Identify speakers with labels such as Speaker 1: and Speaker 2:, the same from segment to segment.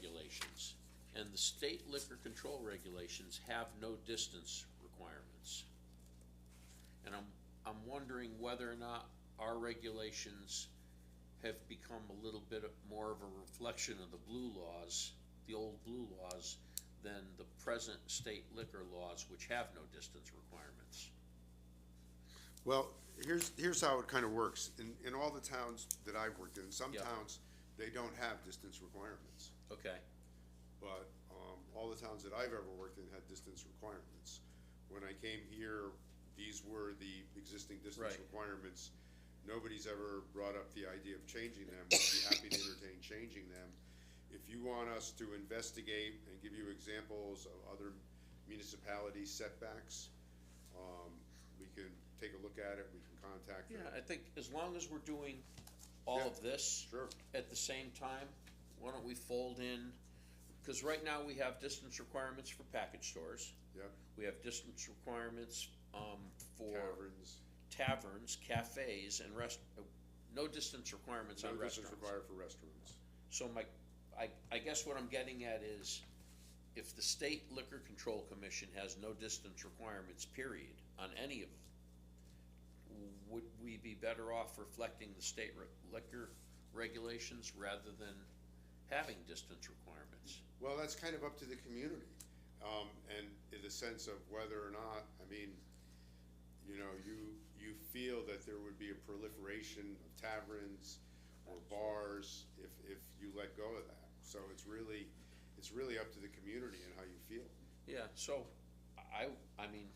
Speaker 1: regulations, and the state liquor control regulations have no distance requirements. And I'm, I'm wondering whether or not our regulations have become a little bit of- more of a reflection of the blue laws, the old blue laws, than the present state liquor laws, which have no distance requirements.
Speaker 2: Well, here's, here's how it kind of works. In, in all the towns that I've worked in, some
Speaker 1: Yeah.
Speaker 2: towns, they don't have distance requirements.
Speaker 1: Okay,
Speaker 2: But, um, all the towns that I've ever worked in had distance requirements. When I came here, these were the existing distance
Speaker 1: Right.
Speaker 2: requirements. Nobody's ever brought up the idea of changing them. We'd be happy to entertain changing them. If you want us to investigate and give you examples of other municipality setbacks, um, we can take a look at it, we can contact
Speaker 1: yeah,
Speaker 2: them.
Speaker 1: I think as long as we're doing all of this.
Speaker 2: Sure.
Speaker 1: at the same time, why don't we fold in, because right now we have distance requirements for package stores.
Speaker 2: Yep.
Speaker 1: We have distance requirements, um, for
Speaker 2: Taverns,
Speaker 1: taverns, cafes, and rest, uh, no distance requirements
Speaker 2: no
Speaker 1: on
Speaker 2: distance
Speaker 1: restaurants.
Speaker 2: required for restaurants.
Speaker 1: So my, I, I guess what I'm getting at is, if the state liquor control commission has no distance requirements, period, on any of them, would we be better off reflecting the state re- liquor regulations rather than having distance requirements?
Speaker 2: Well, that's kind of up to the community, um, and in the sense of whether or not, I mean, you know, you, you feel that there would be a proliferation of taverns or bars if, if you let go of that. So it's really, it's really up to the community and how you feel.
Speaker 1: Yeah, so, I, I mean,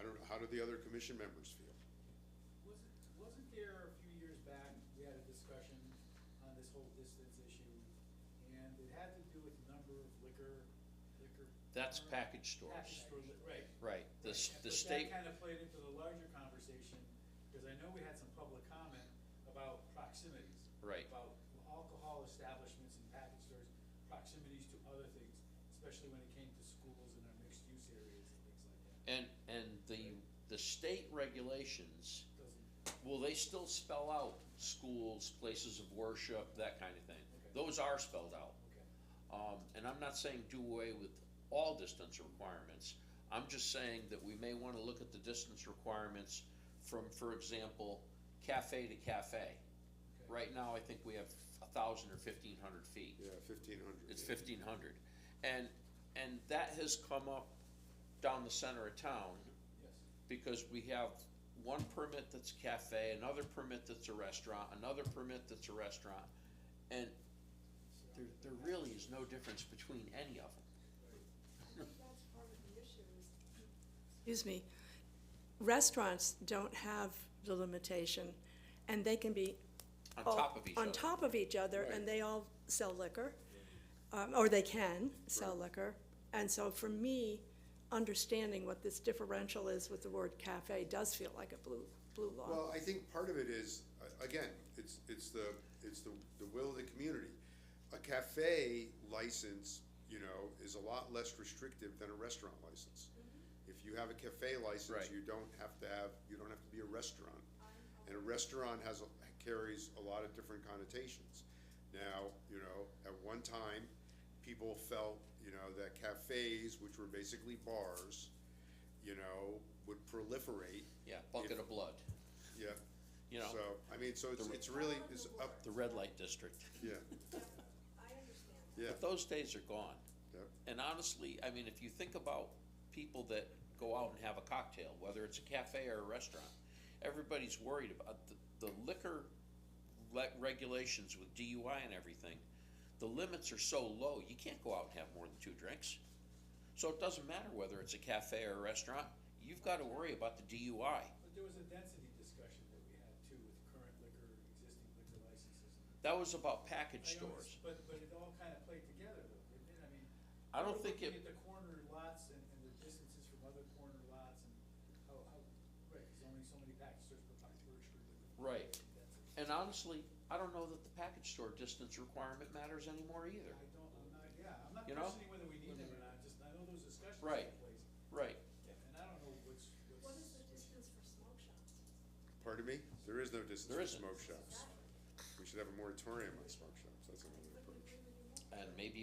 Speaker 2: I don't know, how do the other commission members feel?
Speaker 3: Wasn't, wasn't there a few years back, we had a discussion on this whole distance issue, and it had to do with the number of liquor, liquor.
Speaker 1: that's
Speaker 3: permit-
Speaker 1: package
Speaker 3: Package
Speaker 1: stores,
Speaker 3: store li- right.
Speaker 1: right, the, s-
Speaker 3: Right, and-
Speaker 1: the
Speaker 3: but
Speaker 1: state,
Speaker 3: That kind of played into the larger conversation, because I know we had some public comment about proximities.
Speaker 1: Right.
Speaker 3: About alcohol establishments and package stores, proximities to other things, especially when it came to schools and our mixed-use areas and things like that.
Speaker 1: and, and the, the state regulations
Speaker 3: Doesn't,
Speaker 1: Will they still spell out schools, places of worship, that kind of thing?
Speaker 3: Okay.
Speaker 1: Those are spelled out.
Speaker 3: okay.
Speaker 1: Um, and I'm not saying do away with all distance requirements. I'm just saying that we may wanna look at the distance requirements from, for example, cafe to cafe. Right now, I think we have a thousand or fifteen hundred feet.
Speaker 2: Yeah, fifteen hundred.
Speaker 1: It's fifteen hundred. And, and that has come up down the center of town
Speaker 3: Yes.
Speaker 1: because we have one permit that's a cafe, another permit that's a restaurant, another permit that's a restaurant, and there, there really is no difference between any of them.
Speaker 4: I think that's part of the issue is
Speaker 5: excuse me, restaurants don't have the limitation, and they can be.
Speaker 1: On
Speaker 5: all-
Speaker 1: top of each other.
Speaker 5: On top of each other,
Speaker 1: Right.
Speaker 5: and they all sell liquor, um, or they can sell liquor. And so for me, understanding what this differential is with the word cafe does feel like a blue, blue law.
Speaker 2: Well, I think part of it is, a- again, it's, it's the, it's the, the will of the community. A cafe license, you know, is a lot less restrictive than a restaurant license. If you have a cafe license,
Speaker 1: Right.
Speaker 2: you don't have to have, you don't have to be a restaurant. And a restaurant has, a- carries a lot of different connotations. Now, you know, at one time, people felt, you know, that cafes, which were basically bars, you know, would proliferate,
Speaker 1: Yeah, bucket of blood,
Speaker 2: yeah,
Speaker 1: you know,
Speaker 2: so, I mean, so it's,
Speaker 1: the-
Speaker 2: it's really, it's up,
Speaker 1: the red light district.
Speaker 2: yeah,
Speaker 4: separate. I understand that.
Speaker 2: yeah,
Speaker 1: But those days are gone.
Speaker 2: Yep.
Speaker 1: And honestly, I mean, if you think about people that go out and have a cocktail, whether it's a cafe or a restaurant, everybody's worried about the, the liquor le- regulations with DUI and everything. The limits are so low, you can't go out and have more than two drinks. So it doesn't matter whether it's a cafe or a restaurant, you've got to worry about the DUI.
Speaker 3: But there was a density discussion that we had too with current liquor, existing liquor licenses.
Speaker 1: That was about
Speaker 3: I
Speaker 1: package
Speaker 3: know
Speaker 1: stores.
Speaker 3: it's- But, but it all kind of played together though, didn't it? I mean.
Speaker 1: I don't
Speaker 3: we're
Speaker 1: think it-
Speaker 3: looking At the corner lots and, and the distances from other corner lots and how, how, right, there's only so many package stores per package per liquor.
Speaker 1: Right.
Speaker 3: That's-
Speaker 1: And honestly, I don't know that the package store distance requirement matters anymore either.
Speaker 3: I don't, I'm not, yeah, I'm not
Speaker 1: You know?
Speaker 3: questioning whether we need them or not, just I know those discussions took
Speaker 1: Right.
Speaker 3: place.
Speaker 1: Right.
Speaker 3: And I don't know what's, what's.
Speaker 4: What is the distance for smoke shops?
Speaker 2: pardon me, there is no distance
Speaker 1: There
Speaker 2: for
Speaker 1: isn't.
Speaker 2: smoke shops. We should have a moratorium on smoke shops, that's another approach.
Speaker 1: And maybe